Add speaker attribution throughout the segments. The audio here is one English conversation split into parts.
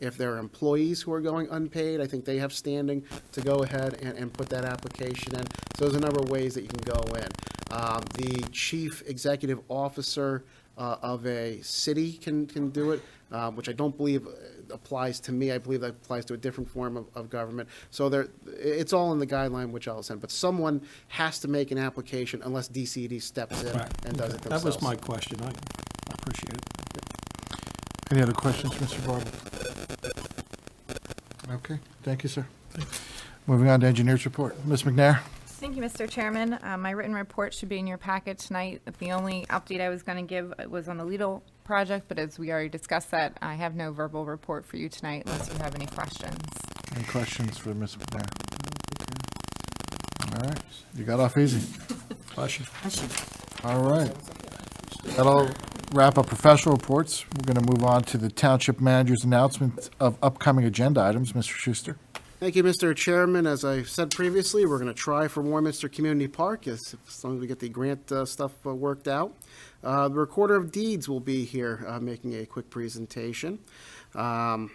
Speaker 1: If there are employees who are going unpaid, I think they have standing to go ahead and, and put that application in. So there's a number of ways that you can go in. Um, The chief executive officer uh, of a city can, can do it, uh, which I don't believe uh, applies to me. I believe that applies to a different form of, of government. So there, it's all in the guideline which I'll send, but someone has to make an application unless DCD steps in
Speaker 2: Right.
Speaker 1: and does it
Speaker 2: Okay.
Speaker 1: themselves.
Speaker 2: That was my question. I I appreciate it.
Speaker 3: Any other questions, Mr. Barber? Okay, thank you, sir. Moving on to engineers report. Ms. McNair?
Speaker 4: Thank you, Mr. Chairman. Uh, My written report should be in your packet tonight. The only update I was going to give uh, was on the Lidl project, but as we already discussed that, I have no verbal report for you tonight unless you have any questions.
Speaker 3: Any questions for Ms. McNair? All right, you got off easy.
Speaker 2: Bless you.
Speaker 3: All right. That'll wrap up professional reports. We're going to move on to the township manager's announcement of upcoming agenda items. Mr. Schuster?
Speaker 1: Thank you, Mr. Chairman. As I said previously, we're going to try for Warminster Community Park as as long as we get the grant uh, stuff uh, worked out. Uh, The Recorder of Deeds will be here uh, making a quick presentation. Um,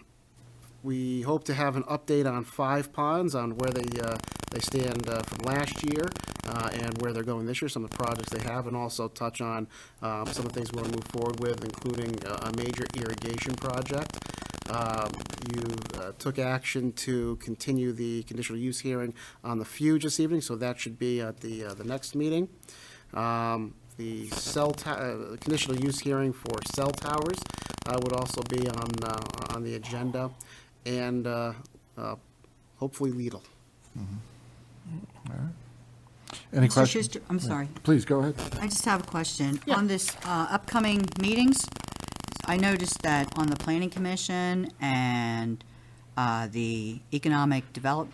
Speaker 1: We hope to have an update on five ponds, on where they, uh, they stand uh, from last year uh, and where they're going this year, some of the projects they have, and also touch on uh, some of the things we want to move forward with, including uh, a major irrigation project. Um, You uh, took action to continue the conditional use hearing on the Fuge this evening, so that should be at the, uh, the next meeting. Um, The cell, to- uh, conditional use hearing for cell towers uh, would also be on, uh, on the agenda, and uh, uh, hopefully Lidl.
Speaker 3: Any
Speaker 5: Mr.
Speaker 3: questions?
Speaker 5: Schuster, I'm sorry.
Speaker 3: Please, go ahead.
Speaker 5: I just have a question. On this uh, upcoming meetings, I noticed that on the Planning Commission and uh, the Economic Develop,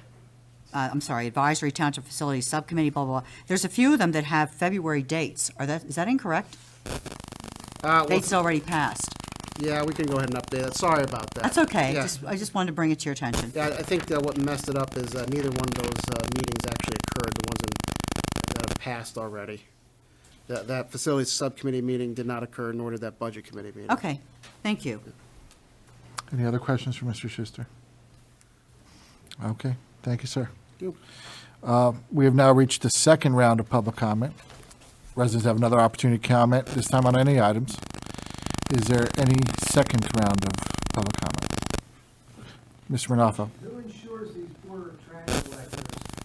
Speaker 5: uh, I'm sorry, Advisory Township Facilities Subcommittee, blah, blah, blah, there's a few of them that have February dates. Are that, is that incorrect?
Speaker 1: Uh, well,
Speaker 5: Dates already passed.
Speaker 1: Yeah, we can go ahead and update it. Sorry about that.
Speaker 5: That's okay.
Speaker 1: Yeah.
Speaker 5: Just- I just wanted to bring it to your attention.
Speaker 1: Yeah, I think that what messed it up is uh, neither one of those uh, meetings actually occurred, the ones in- that have passed already. That, that facilities subcommittee meeting did not occur, nor did that budget committee meeting.
Speaker 5: Okay, thank you.
Speaker 3: Any other questions for Mr. Schuster? Okay, thank you, sir.
Speaker 1: Thank you.
Speaker 3: Uh, We have now reached the second round of public comment. Residents have another opportunity to comment, this time on any items. Is there any second round of public comment? Mr. Manoffo?
Speaker 6: Who ensures these poor trash collectors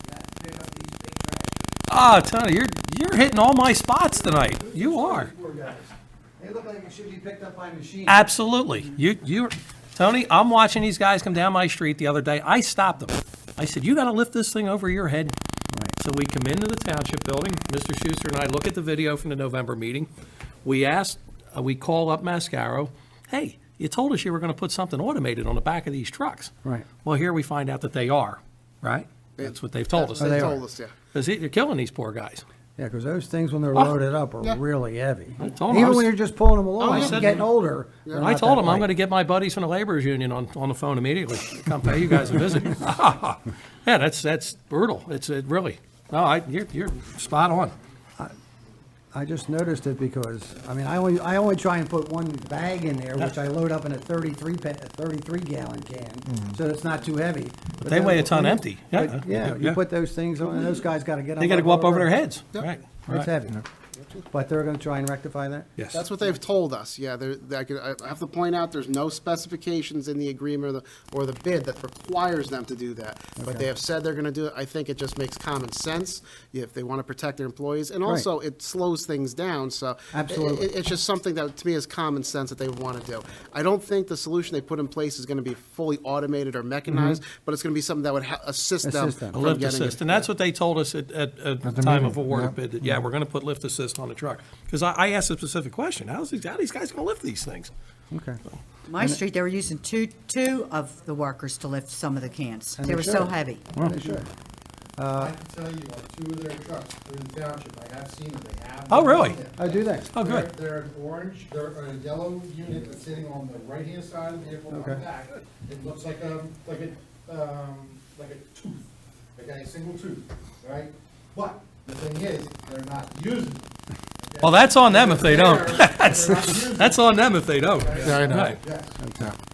Speaker 6: that pick up these big trash?
Speaker 2: Ah, Tony, you're, you're hitting all my spots tonight. You are.
Speaker 6: Poor guys. They look like it should be picked up by machines.
Speaker 2: Absolutely. You, you, Tony, I'm watching these guys come down my street the other day. I stopped them. I said, you gotta lift this thing over your head. So we come into the township building, Mr. Schuster and I look at the video from the November meeting. We asked, uh, we call up Mascaro, hey, you told us you were gonna put something automated on the back of these trucks.
Speaker 7: Right.
Speaker 2: Well, here we find out that they are, right? That's what they've told us.
Speaker 1: They told us, yeah.
Speaker 2: Because they're killing these poor guys.
Speaker 7: Yeah, because those things, when they're loaded up, are really heavy.
Speaker 2: Ah. I told 'em I
Speaker 7: Even
Speaker 2: was- Oh,
Speaker 7: when you're just pulling them
Speaker 2: I
Speaker 7: along,
Speaker 2: said-
Speaker 7: you're getting older. they're
Speaker 2: I
Speaker 7: not
Speaker 2: told
Speaker 7: that
Speaker 2: him I'm
Speaker 7: light.
Speaker 2: going to get my buddies from the laborers union on, on the phone immediately. Come pay you guys a visit. yeah, that's that's brutal. It's it really. No, I you're, you're spot on.
Speaker 7: I just noticed it because, I mean, I only, I only try and put one bag in there, which I load up in a thirty-three, pa- a thirty-three gallon can, so it's not too heavy. But
Speaker 2: Mm-hmm. they weigh a
Speaker 7: those-
Speaker 2: ton empty. Yeah.
Speaker 7: but Yeah, you
Speaker 2: Yeah.
Speaker 7: put those things on, and those guys gotta get them.
Speaker 2: They got to go up over their heads. Right.
Speaker 7: It's
Speaker 2: right.
Speaker 7: heavy. But they're gonna try and rectify that?
Speaker 2: Yes.
Speaker 1: That's what they've told us, yeah. There, I could, I have to point out, there's no specifications in the agreement or the, or the bid that requires them to do that. But they have said they're gonna do it. I think it just makes common sense if they wanna protect their employees. And also, it slows things down, so. it-
Speaker 7: Absolutely.
Speaker 1: it- It's just something that, to me, is common sense that they would wanna do. I don't think the solution they put in place is gonna be fully automated or mechanized, but it's gonna be something that would ha- assist them
Speaker 7: Assist them.
Speaker 1: from
Speaker 2: A
Speaker 1: getting.
Speaker 2: lift
Speaker 1: it.
Speaker 2: assist, and that's what they told us at, at, at
Speaker 3: At the
Speaker 2: time
Speaker 3: meeting,
Speaker 2: of award
Speaker 3: yeah.
Speaker 2: bid, that, yeah, we're gonna put lift assist on the truck. Because I, I asked a specific question, how's, these- how these guys gonna lift these things?
Speaker 7: Okay.
Speaker 5: My street, they were using two, two of the workers to lift some of the cans.
Speaker 7: And
Speaker 5: They
Speaker 7: they
Speaker 5: were so
Speaker 7: should.
Speaker 5: heavy.
Speaker 7: They should.
Speaker 8: I can tell you, like, two of their trucks through the township, I have seen them, they have.
Speaker 2: Oh, really?
Speaker 8: them.
Speaker 7: Oh, do they?
Speaker 2: Oh,
Speaker 8: They're,
Speaker 2: good.
Speaker 8: they're an orange, they're a yellow unit that's sitting on the right-hand side of the vehicle on the
Speaker 7: Okay.
Speaker 8: back. It looks like a, like a, um, like a tooth, okay, a single tooth, right? But the thing is, they're not using them. okay?
Speaker 2: Well, that's on them if they don't.
Speaker 8: They're- they're not using
Speaker 2: That's
Speaker 8: them,
Speaker 2: on them if they don't.
Speaker 8: okay?
Speaker 3: Yeah, I know.
Speaker 2: Right.
Speaker 8: Yes.
Speaker 3: Okay.